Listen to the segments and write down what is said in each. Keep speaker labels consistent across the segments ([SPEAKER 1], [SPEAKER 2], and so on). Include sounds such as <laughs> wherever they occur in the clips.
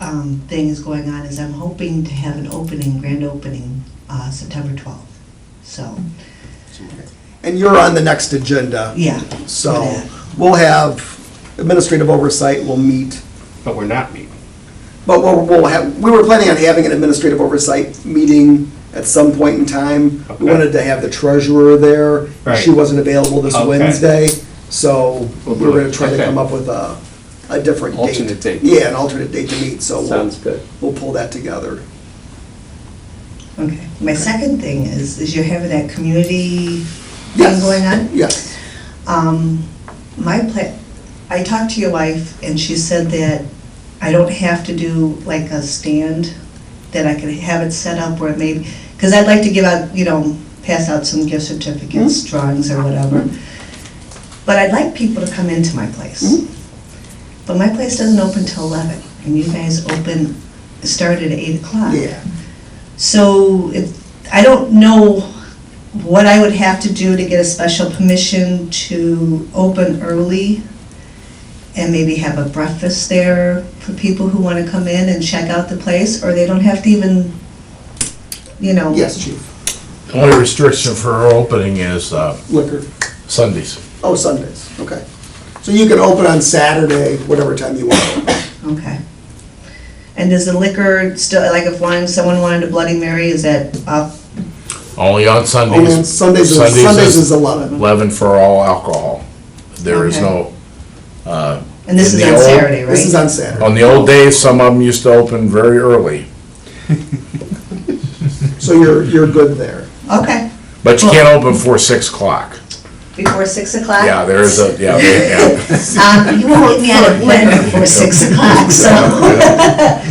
[SPEAKER 1] um, thing is going on is I'm hoping to have an opening, grand opening, uh, September 12th. So,
[SPEAKER 2] And you're on the next agenda.
[SPEAKER 1] yeah.
[SPEAKER 2] So we'll have administrative oversight, we'll meet,
[SPEAKER 3] But we're not meeting.
[SPEAKER 2] but we'll, we'll have, we were planning on having an administrative oversight meeting at some point in time. We
[SPEAKER 3] Okay.
[SPEAKER 2] wanted to have the treasurer there. She
[SPEAKER 3] Right.
[SPEAKER 2] wasn't available this
[SPEAKER 3] Okay.
[SPEAKER 2] Wednesday, so we
[SPEAKER 4] We'll
[SPEAKER 2] were
[SPEAKER 4] do it.
[SPEAKER 2] gonna try to
[SPEAKER 3] Okay.
[SPEAKER 2] come up with a, a different date.
[SPEAKER 4] Alternate date.
[SPEAKER 2] Yeah, an alternate date to meet, so we'll,
[SPEAKER 4] Sounds good.
[SPEAKER 2] we'll pull that together.
[SPEAKER 1] Okay. My second thing is, is you're having that community thing
[SPEAKER 2] Yes.
[SPEAKER 1] going on?
[SPEAKER 2] Yes,
[SPEAKER 1] Um, my pla, I talked to your wife and she said that I don't have to do like a stand, that I could have it set up where it may, because I'd like to give out, you know, pass out some gift certificates, drawings or whatever. But I'd like people to come into my place. But my place doesn't open till eleven and you guys open, start at eight o'clock.
[SPEAKER 2] yeah.
[SPEAKER 1] So if, I don't know what I would have to do to get a special permission to open early and maybe have a breakfast there for people who want to come in and check out the place, or they don't have to even, you know.
[SPEAKER 2] Yes, chief.
[SPEAKER 5] The only restriction for her opening is uh,
[SPEAKER 2] Liquor.
[SPEAKER 5] Sundays.
[SPEAKER 2] Oh, Sundays, okay. So you can open on Saturday, whatever time you want.
[SPEAKER 1] Okay. And does the liquor still, like if one, someone wanted a Bloody Mary, is that up?
[SPEAKER 5] Only on Sundays.
[SPEAKER 2] Only on Oh, Sundays, is- Sundays is 11.
[SPEAKER 5] 11 for all alcohol. There is
[SPEAKER 1] Okay.
[SPEAKER 5] no,
[SPEAKER 1] And this
[SPEAKER 5] In
[SPEAKER 1] is
[SPEAKER 5] the
[SPEAKER 1] on
[SPEAKER 5] old-
[SPEAKER 1] Saturday, right?
[SPEAKER 2] This is on Saturday.
[SPEAKER 5] on the old days, some of them used to open very early,
[SPEAKER 2] So you're, you're good there.
[SPEAKER 1] Okay,
[SPEAKER 5] but you can't open before 6 o'clock.
[SPEAKER 1] before six o'clock?
[SPEAKER 5] Yeah, there is a, yeah,
[SPEAKER 1] <laughs>
[SPEAKER 5] yeah,
[SPEAKER 1] Um, you won't get me out of bed before six o'clock,
[SPEAKER 5] <laughs>
[SPEAKER 1] so.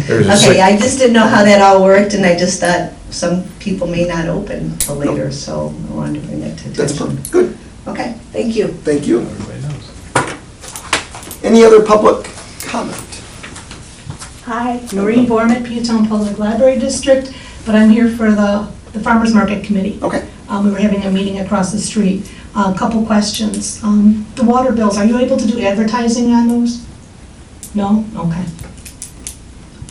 [SPEAKER 5] there's a
[SPEAKER 1] Okay,
[SPEAKER 5] six.
[SPEAKER 1] I just didn't know how that all worked, and I just thought some people may not open till later, so I wanted to bring that to attention.
[SPEAKER 2] That's perfect. Good,
[SPEAKER 1] Okay, thank you.
[SPEAKER 2] thank you. Any other public comment?
[SPEAKER 6] Hi, Noreen Borman, Peatone Public Library District, but I'm here for the the Farmers Market Committee.
[SPEAKER 2] Okay.
[SPEAKER 6] Um, We were having a meeting across the street. A couple questions. Um, The water bills, are you able to do advertising on those? No? Okay.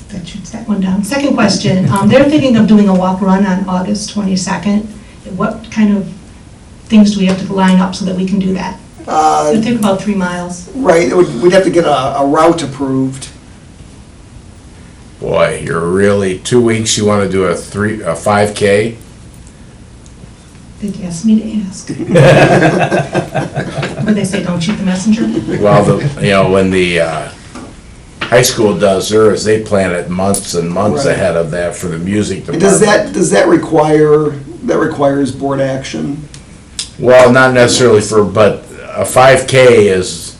[SPEAKER 6] That shoots that one down. Second question, um, they're thinking of doing a walk-run on August 22nd. What kind of things do we have to line up so that we can do that? It'll
[SPEAKER 2] Uh,
[SPEAKER 6] take about three miles.
[SPEAKER 2] Right, it would- we'd have to get a a route approved.
[SPEAKER 5] Boy, you're really, two weeks, you want to do a 3, a 5K?
[SPEAKER 6] They asked me to ask. But they say, don't shoot the messenger.
[SPEAKER 5] Well, the, you know, when the uh, high school does theirs, they plan it months and months
[SPEAKER 2] Right.
[SPEAKER 5] ahead of that for the music
[SPEAKER 2] And
[SPEAKER 5] department.
[SPEAKER 2] Does that, does that require, that requires board action?
[SPEAKER 5] Well, not necessarily for, but a five K is,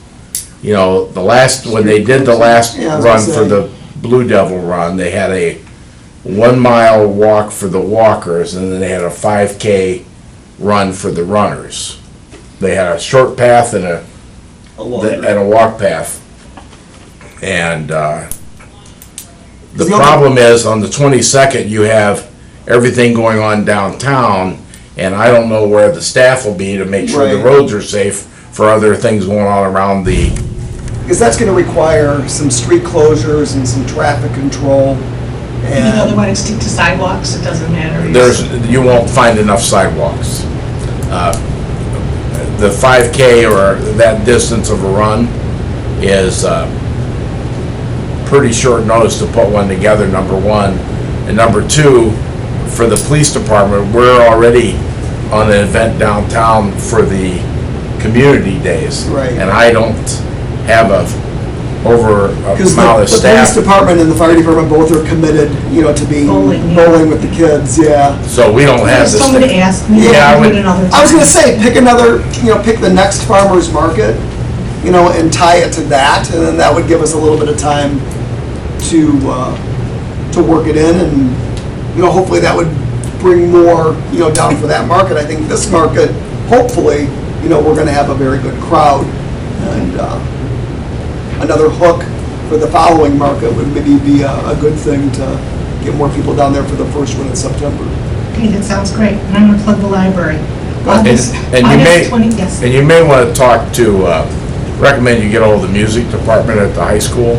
[SPEAKER 5] you know, the last, when they did the last
[SPEAKER 2] Yeah, I was gonna
[SPEAKER 5] run
[SPEAKER 2] say.
[SPEAKER 5] for the Blue Devil run, they had a one mile walk for the walkers and then they had a five K run for the runners. They had a short path and a,
[SPEAKER 2] A
[SPEAKER 5] and a walk path. And, uh, the
[SPEAKER 2] The only-
[SPEAKER 5] problem is on the twenty-second, you have everything going on downtown and I don't know where the staff will be to make sure the
[SPEAKER 2] Right.
[SPEAKER 5] roads are safe for other things going on around the,
[SPEAKER 2] Because that's going to require some street closures and some traffic control.
[SPEAKER 6] You know, they
[SPEAKER 2] And
[SPEAKER 6] want to stick to sidewalks, it doesn't matter.
[SPEAKER 5] there's, you won't find enough sidewalks. Uh, The five K or that distance of a run is, uh, pretty short notice to put one together, number one. And number two, for the police department, we're already on an event downtown for the community days.
[SPEAKER 2] Right.
[SPEAKER 5] And I don't have a, over a
[SPEAKER 2] Because the
[SPEAKER 5] amount of
[SPEAKER 2] the police
[SPEAKER 5] staff,
[SPEAKER 2] department and the fire department both are committed, you know, to being
[SPEAKER 6] Bowling, yeah.
[SPEAKER 2] bowling with the kids, yeah.
[SPEAKER 5] so we don't have
[SPEAKER 6] There's
[SPEAKER 5] this.
[SPEAKER 6] someone to
[SPEAKER 5] thing.
[SPEAKER 6] ask, maybe
[SPEAKER 5] Yeah, I
[SPEAKER 6] I'll do
[SPEAKER 5] would-
[SPEAKER 6] it another time.
[SPEAKER 2] I was gonna say, pick another, you know, pick the next farmer's market, you know, and tie it to that, and then that would give us a little bit of time to, uh, to work it in, and, you know, hopefully that would bring more, you know, down for that market. I think this market, hopefully, you know, we're gonna have a very good crowd, and, uh, another hook for the following market would maybe be a, a good thing to get more people down there for the first one in September.
[SPEAKER 6] Okay, that sounds great, and I'm gonna plug the library. August-
[SPEAKER 5] and you may-
[SPEAKER 6] August 20, yes.
[SPEAKER 5] And you may want to talk to, uh, recommend you get all the music department at the high school